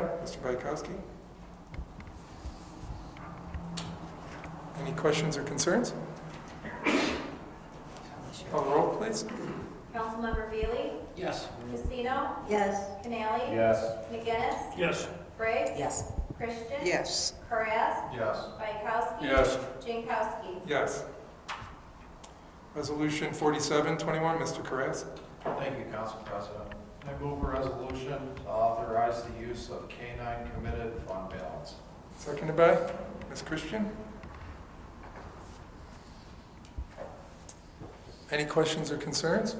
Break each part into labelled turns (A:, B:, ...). A: Mr. Bykowski? Any questions or concerns? Call the roll, please.
B: Councilmember Veely?
C: Yes.
B: Casino?
D: Yes.
B: Canali?
C: Yes.
B: McGinnis?
C: Yes.
B: Briggs?
D: Yes.
B: Christian?
E: Yes.
B: Karas?
C: Yes.
B: Bykowski?
A: Yes.
B: Jankowski?
A: Yes. Resolution 4721, Mr. Carras.
F: Thank you, Council President. I move a resolution to authorize the use of K-9 committed fund balance.
A: Seconded by Ms. Christian. Any questions or concerns?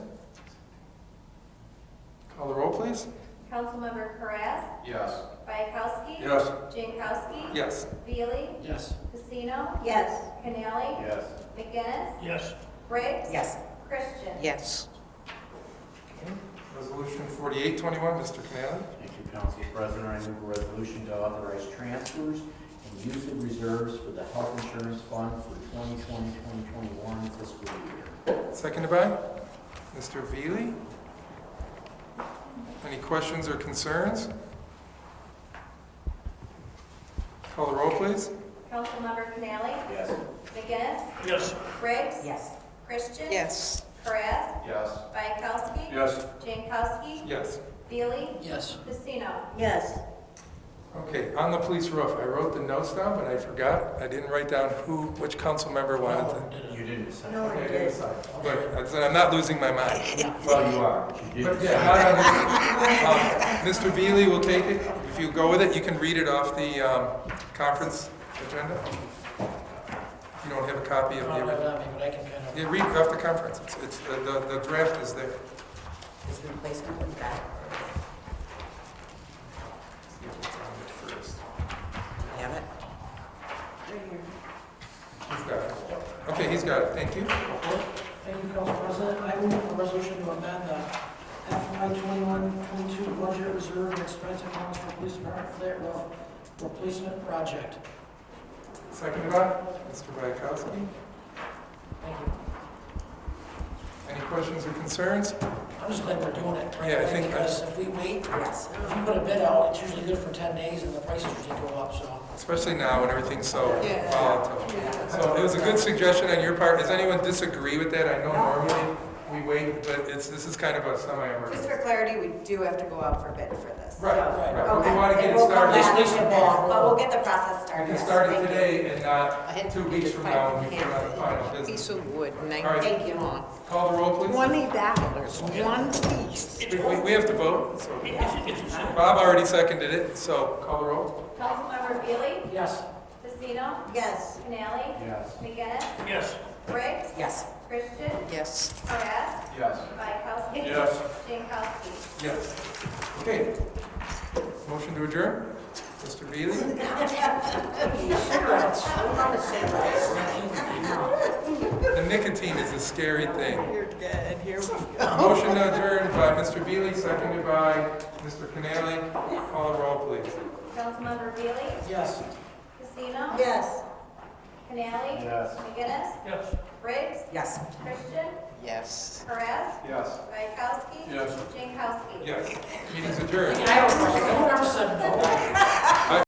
A: Call the roll, please.
B: Councilmember Karas?
F: Yes.
B: Bykowski?
A: Yes.
B: Jankowski?
A: Yes.
B: Veely?
C: Yes.
B: Casino?
D: Yes.
B: Canali?
F: Yes.
B: McGinnis?
C: Yes.
B: Briggs?
D: Yes.
B: Christian?
E: Yes.
A: Resolution 4821, Mr. Canali.
C: Thank you, Council President. I move a resolution to authorize transfers and use of reserves for the health insurance fund for 2020, 2021 fiscal year.
A: Seconded by Mr. Veely. Any questions or concerns? Call the roll, please.
B: Councilmember Canali?
C: Yes.
B: McGinnis?
C: Yes.
B: Briggs?
D: Yes.
B: Christian?
E: Yes.
B: Karas?
F: Yes.
B: Bykowski?
A: Yes.
B: Jankowski?
A: Yes.
B: Veely?
C: Yes.
B: Casino?
D: Yes.
A: Okay, on the police roof, I wrote the notes down, but I forgot, I didn't write down who, which council member wanted to.
C: You didn't decide.
D: No, I
A: Okay,
D: did.
A: But I said, I'm not losing my mind.
C: Well, Oh, you are. You did
A: But
C: decide.
A: yeah, not on this. Um, Mr. Veely will take it, if you go with it, you can read it off the um, conference agenda. If you don't have a copy of the original.
C: but I can kind
A: Yeah, read off the conference, it's, it's, the, the- the draft is there.
D: Is the replacement with that?
A: See if it's on it first.
D: Have it?
A: He's got it. Okay, he's got it, thank you.
G: Thank you, Council President. I move a resolution to amend the FY 21-22 budget reserve and expense accounts for police department flat roof replacement project.
A: Seconded by Mr. Bayakowski.
G: Thank you.
A: Any questions or concerns?
G: I'm just glad we're doing it. right
A: Yeah, I
G: away,
A: think I-
G: Because if we wait,
D: Yes.
G: if you put a bid out, it's usually good for 10 days and the prices usually go up, so.
A: Especially now when everything's so
E: Yeah.
A: volatile. So it was a good suggestion on your part, does anyone disagree with that? I know normally we wait, but it's, this is kind of a
E: Just for
A: semi-emergency.
E: clarity, we do have to go out for bid for this.
A: Right,
E: so-
A: right, but
E: Okay.
A: we want to get it
E: And we'll come
A: started.
E: back
G: Just
E: to
G: listen
E: this,
G: while we're-
E: But we'll get the process started.
A: We can
E: yes,
A: start
E: thank
A: it
E: you.
A: today and not two weeks from now when we put on the final business.
E: Piece of wood,
A: All right.
E: nineteen gallon.
A: Call the roll, please.
E: Twenty dollars, one piece.
A: We, we- we have to vote, so. Bob already seconded it, so call the roll.
B: Councilmember Veely?
G: Yes.
B: Casino?
D: Yes.
B: Canali?
C: Yes.
B: McGinnis?
C: Yes.
B: Briggs?
D: Yes.
B: Christian?
E: Yes.
B: Karas?
F: Yes.
B: Bykowski? Jankowski?
A: Yes. Okay. Motion to adjourn? Mr. Veely?
G: Cigarettes. I love cigarettes.
A: The nicotine is a scary thing.
E: You're good, here we go.
A: Motion to adjourn by Mr. Veely, seconded by Mr. Canali. Call the roll, please.
B: Councilmember Veely?
G: Yes.
B: Casino?
D: Yes.
B: Canali?
F: Yes.
B: McGinnis?
C: Yes.
B: Briggs?
D: Yes.
B: Christian?
E: Yes.
B: Karas?
F: Yes.
B: Bykowski?
A: Yes.
B: Jankowski?
A: Yes. Meeting's adjourned.
G: I have a question. Whoever said no.